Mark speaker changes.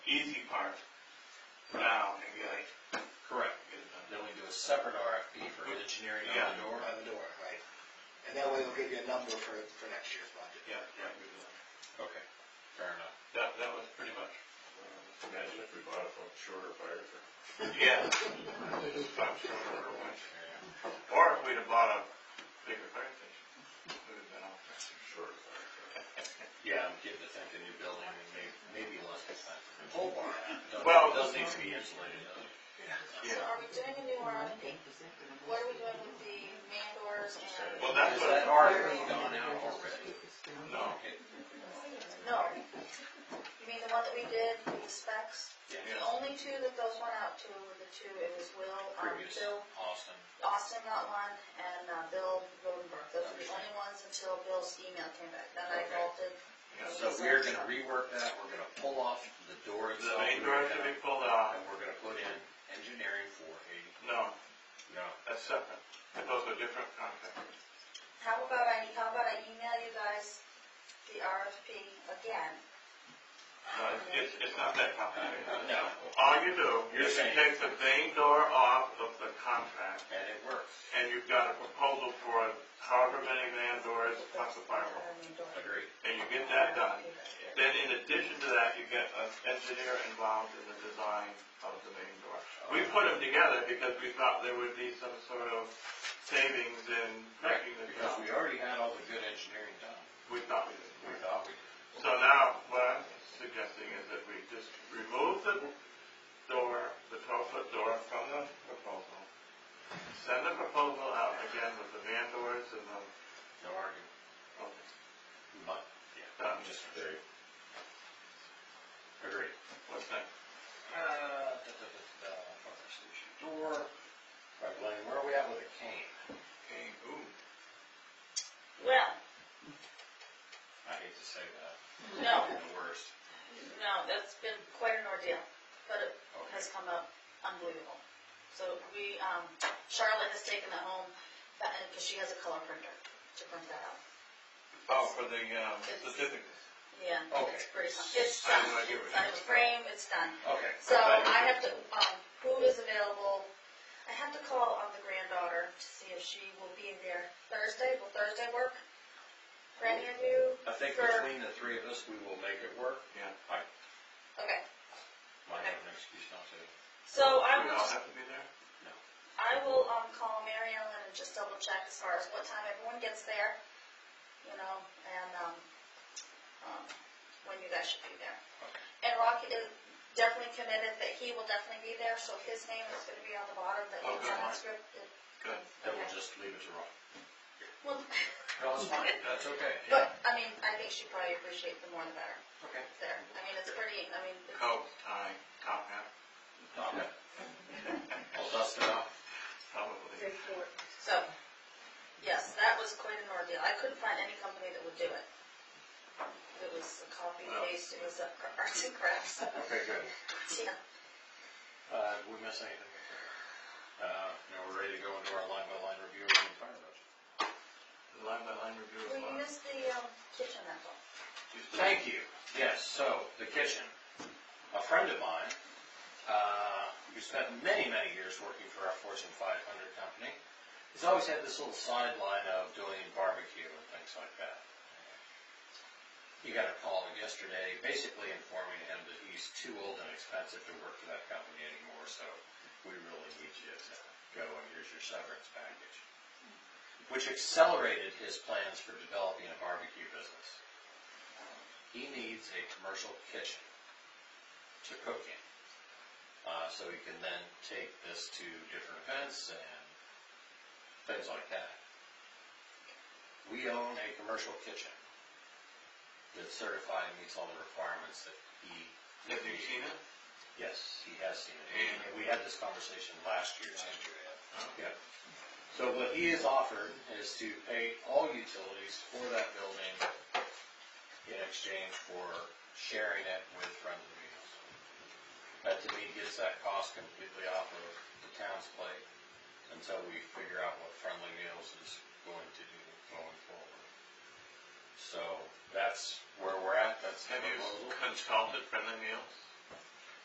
Speaker 1: easy part now and get it,
Speaker 2: Correct.
Speaker 1: get it done.
Speaker 2: Then we do a separate RFP for engineering on the door.
Speaker 3: on the door, right? And that way it'll give you a number for, for next year's budget.
Speaker 1: Yeah, yeah, we did.
Speaker 2: Okay, fair enough.
Speaker 1: that, that was pretty much,
Speaker 4: Imagine if we bought it from shorter fire.
Speaker 1: yeah. I'm sure we would've went.
Speaker 2: Yeah.
Speaker 1: Or if we'd have bought a bigger fire station, would have been all set.
Speaker 4: Shorter fire.
Speaker 2: Yeah, I'm getting to think a new building and may, maybe less expensive.
Speaker 3: Oh,
Speaker 2: Whole barn.
Speaker 1: Well-
Speaker 2: Doesn't need to be insulated though.
Speaker 5: So
Speaker 1: Yeah,
Speaker 5: are we doing a new RFP? What are we doing with the man doors and,
Speaker 1: well, that's
Speaker 2: Is
Speaker 1: what,
Speaker 2: that RFP gone out already?
Speaker 1: no,
Speaker 2: Oh, Okay.
Speaker 5: no? You mean the one that we did, the specs? The
Speaker 1: yeah,
Speaker 5: only two that those went out to were the two, it was Will, um,
Speaker 2: Previous,
Speaker 5: Bill,
Speaker 2: Austin.
Speaker 5: Austin got one, and uh, Bill Rodenberg. Those were the only ones until Bill's email came back, then I
Speaker 2: Okay.
Speaker 5: vaulted.
Speaker 2: So we're gonna rework that, we're gonna pull off the door
Speaker 1: the
Speaker 2: itself.
Speaker 1: main door should be pulled out,
Speaker 2: And we're gonna put in engineering for a,
Speaker 1: no,
Speaker 2: no,
Speaker 1: that's separate, those are different contracts.
Speaker 5: How about I, how about I email you guys the RFP again?
Speaker 1: No, it's- it's, it's not that complicated.
Speaker 2: no,
Speaker 1: All you do,
Speaker 2: You're
Speaker 1: is you
Speaker 2: saying-
Speaker 1: take the main door off of the contract,
Speaker 2: and it works.
Speaker 1: and you've got a proposal for however many man doors plus a firewall,
Speaker 2: Agreed.
Speaker 1: and you get that done. Then in addition to that, you get an engineer involved in the design of the main door. We put them together because we thought there would be some sort of savings in making the
Speaker 2: Because
Speaker 1: job.
Speaker 2: we already had all the good engineering done,
Speaker 1: We thought we did.
Speaker 2: we thought we did.
Speaker 1: So now, what I'm suggesting is that we just remove the door, the twelve-foot door from the proposal. Send the proposal out again with the van doors and the, oh,
Speaker 2: No argument. But, yeah,
Speaker 1: Done.
Speaker 2: I'm just agree. Agree.
Speaker 1: what's next?
Speaker 2: Uh, da, da, da, da, fire station door. Right, Blaine, where are we at with the cane?
Speaker 1: Okay, ooh.
Speaker 5: Well,
Speaker 2: I hate to say that.
Speaker 5: no,
Speaker 2: The worst.
Speaker 5: no, that's been quite an ordeal, but it
Speaker 2: Okay.
Speaker 5: has come up unbelievable. So we, um, Charlotte has taken that home, because she has a color printer to print that out.
Speaker 1: Oh, for the, um, certificates.
Speaker 5: Yeah, it's pretty, fun. it's
Speaker 1: I
Speaker 5: done,
Speaker 1: have no idea
Speaker 5: it's
Speaker 1: what
Speaker 5: on a frame, it's done.
Speaker 2: Okay.
Speaker 5: So I have to, um, who is available, I have to call on the granddaughter to see if she will be there Thursday, will Thursday work? For any of you?
Speaker 2: I think
Speaker 5: For-
Speaker 2: between the three of us, we will make it work.
Speaker 1: Yeah.
Speaker 2: I
Speaker 5: Okay,
Speaker 2: might have an excuse not to.
Speaker 5: so I
Speaker 1: Do we
Speaker 5: will
Speaker 1: all have to be there?
Speaker 5: I will, um, call Mary Ellen and just double check as far as what time everyone gets there, you know, and, um, um, when you guys should be there. And Rocky is definitely committed that he will definitely be there, so his name is gonna be on the bottom, that
Speaker 1: Oh,
Speaker 5: he's
Speaker 1: good.
Speaker 5: on that script.
Speaker 1: Good.
Speaker 2: Then we'll just leave it to Ron.
Speaker 5: Well,
Speaker 2: No, it's fine, that's okay.
Speaker 5: but, I mean, I think she'd probably appreciate the more the better
Speaker 2: Okay.
Speaker 5: there. I mean, it's pretty, I mean, it's-
Speaker 1: Coat, tie, top hat,
Speaker 2: Okay. I'll dust it off.
Speaker 1: probably.
Speaker 5: so, yes, that was quite an ordeal. I couldn't find any company that would do it. It was a copy
Speaker 1: Well.
Speaker 5: paste, it was a arts and crafts.
Speaker 2: Okay, good.
Speaker 5: Yeah.
Speaker 2: Uh, did we miss anything? Uh, now we're ready to go into our line by line review of the entire budget.
Speaker 1: Line by line review as
Speaker 5: Will
Speaker 1: well.
Speaker 5: you use the um, kitchen apple?
Speaker 2: Thank you. Yes, so, the kitchen. A friend of mine, uh, who spent many, many years working for our Fortune five hundred company, has always had this little sideline of doing barbecue and things like that. He got a call yesterday, basically informing him that he's too old and expensive to work for that company anymore, so we really need you to go and here's your severance package. Which accelerated his plans for developing a barbecue business. He needs a commercial kitchen to cook in. Uh, so he can then take this to different events and things like that. We own a commercial kitchen that's certified and meets all the requirements that he.
Speaker 1: Have you seen it?
Speaker 2: Yes, he has seen it. And we had this conversation last year too. Yeah. So what he has offered is to pay all utilities for that building in exchange for sharing it with Friends of Meals. That to me gets that cost completely off of the town's plate until we figure out what Friendly Meals is going to do going forward. So that's where we're at, that's the
Speaker 1: Have you
Speaker 2: proposal.
Speaker 1: consulted friendly meals?